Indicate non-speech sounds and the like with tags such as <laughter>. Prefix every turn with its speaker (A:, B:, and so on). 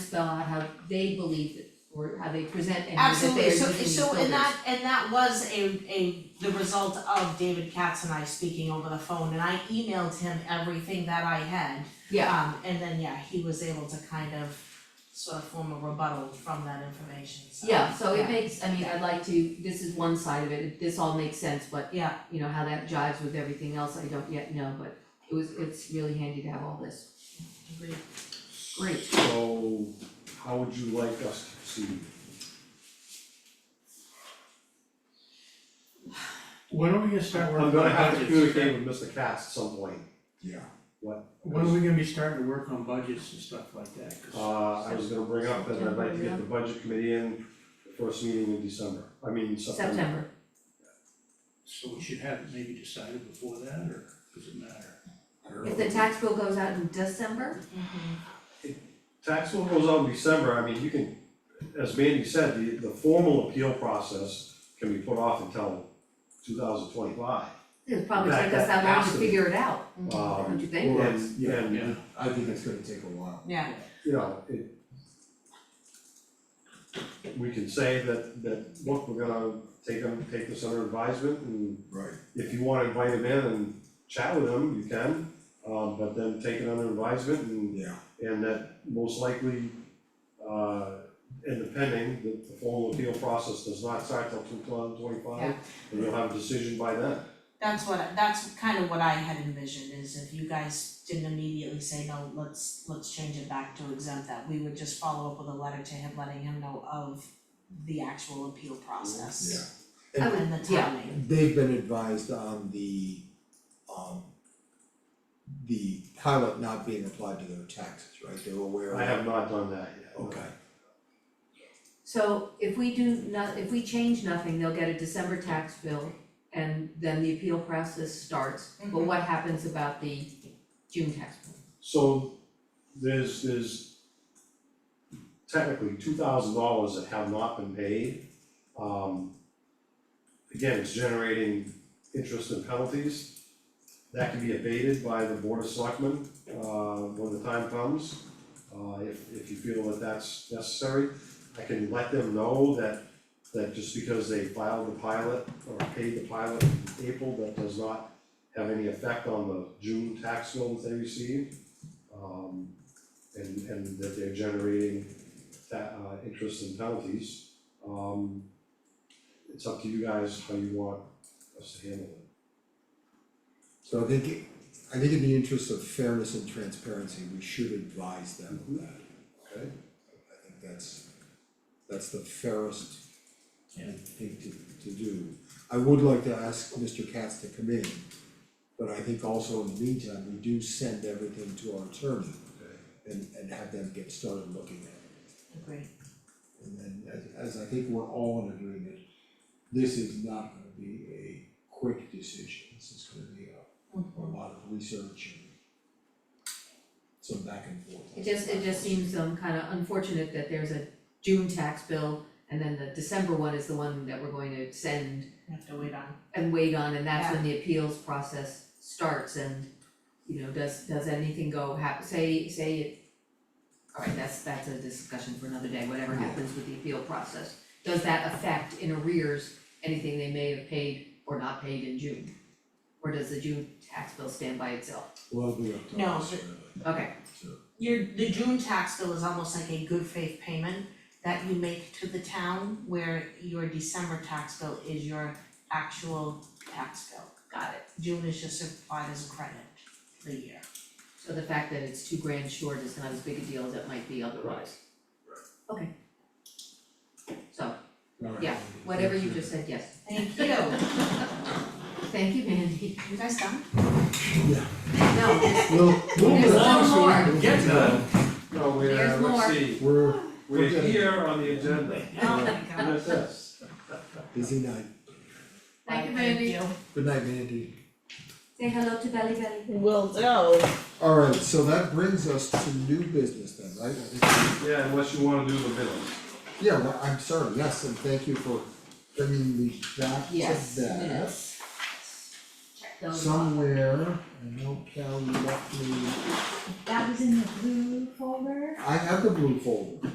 A: spell out how they believe that, or how they present and that they
B: Absolutely,
A: are
B: so
A: using these
B: so and
A: filters.
B: that and that was a a the result of David Katz and I speaking over the phone and I emailed him everything that I had.
A: Yeah,
B: Um and then, yeah, he was able to kind of sort of form a rebuttal from that information, so.
A: yeah, so it
B: yeah.
A: makes, I mean, I'd like to, this is one side of it, this all makes sense, but
B: Yeah,
A: you know, how that jives with everything else, I don't yet know, but it was, it's really handy to have all this.
B: agreed.
A: Great,
C: So how would you like us to proceed?
D: When are we gonna start
C: I'm
D: working on
C: gonna have to
D: budgets?
C: communicate with Mr. Katz at some point.
E: Yeah.
D: When are we gonna be starting to work on budgets and stuff like that? 'Cause-
C: Uh, I was gonna bring up that I'd like to get the budget committee in the first meeting in December, I mean September.
A: September,
D: So we should have it maybe decided before that, or does it matter?
A: if the tax bill goes out in December, Mm-hmm.
C: Tax bill goes out in December, I mean, you can, as Mandy said, the, the formal appeal process can be put off until two thousand twenty-five.
A: it'll probably
C: That-
A: take us that
C: that
A: long
C: has
A: to
C: to be.
A: figure it out, don't
C: Um,
A: you think?
E: Well, that's-
C: and,
E: yeah,
C: and,
D: Yeah.
E: I think it's gonna take a while.
B: Yeah,
C: you know, it. We can say that, that, look, we're gonna take them, take this under advisement and
E: Right.
C: if you wanna invite him in and chat with him, you can, um, but then take it under advisement and,
E: Yeah,
C: and that most likely, uh, and depending, the, the formal appeal process does not start till two thousand twenty-five,
B: Yeah.
C: and you'll have a decision by then.
B: that's what, that's kind of what I had envisioned is if you guys didn't immediately say, no, let's let's change it back to exempt that, we would just follow up with a letter to him letting him know of the actual appeal process.
E: yeah.
A: I would-
B: Oh, And the
A: yeah.
B: timing.
E: They've been advised on the, um, the pilot not being applied to their taxes, right? They're aware of
C: I
E: that.
C: have not done that yet.
E: Okay,
A: So if we do not, if we change nothing, they'll get a December tax bill and then the appeal process starts. But
B: Mhm.
A: what happens about the June tax bill?
C: So there's, there's technically two thousand dollars that have not been paid. Um, again, it's generating interest and penalties. That can be abated by the board of selectmen, uh, when the time comes. Uh, if, if you feel that that's necessary, I can let them know that, that just because they filed the pilot or paid the pilot in April, that does not have any effect on the June tax bill that they receive. Um, and, and that they're generating ta- uh, interest and penalties. Um, it's up to you guys how you want us to handle it.
E: so I think, it- I think in the interest of fairness and transparency, we should advise them of that.
C: Okay.
E: I think that's, that's the fairest thing to, to do. I would like to ask Mr. Katz to come in, but I think also in the meantime, we do send everything to our attorney and, and have them get started looking at
B: Agree.
E: it. And then, as, as I think we're all in agreement, this is not gonna be a quick decision, this is gonna be a, a lot of research and some back and forth.
A: It just, it just seems um kind of unfortunate that there's a June tax bill and then the December one is the one that we're going to send
B: We have to wait on.
A: and wait on, and that's when the appeals process starts and, you know, does, does anything go hap, say, say it. Alright, that's, that's a discussion for another day, whatever happens with the appeal process, does that affect in arrears anything they may have paid or not paid in June? Or does the June tax bill stand by itself?
E: Well, we have to.
B: No,
E: us,
B: but-
E: really,
A: Okay,
E: so.
B: Your, the June tax bill is almost like a good faith payment that you make to the town where your December tax bill is your actual tax bill.
A: got it,
B: June is just applied as a credit for the year.
A: so the fact that it's two grand short is not as big a deal as it might be otherwise. Right. Okay. So,
E: All right.
A: Yeah, whatever you
E: Thank
A: just said, yes,
B: Thank you.
A: thank you, Mandy,
B: You guys done?
A: no,
E: We'll,
A: <laughs>
E: we'll
A: There's one
E: move on so we
A: more.
E: can get to that.
C: No, we're, uh,
A: There's
C: let's
A: more.
C: see,
E: We're
C: we're
E: Okay.
C: here on the
A: <laughs>
C: agenda,
B: Oh my
C: Look at this.
E: busy night.
A: thank you, Mandy.
E: Good night, Mandy.
A: Say hello to Belly Belly.
F: Will do.
E: Alright, so that brings us to new business then, right? I think-
C: Yeah, unless you wanna do the minutes.
E: Yeah, well, I'm sorry, yes, and thank you for bringing me back to that.
A: Yes, minutes. Check.
F: though.
E: somewhere, I know Cal left me,
F: That was in the blue folder.
E: I have the blue folder.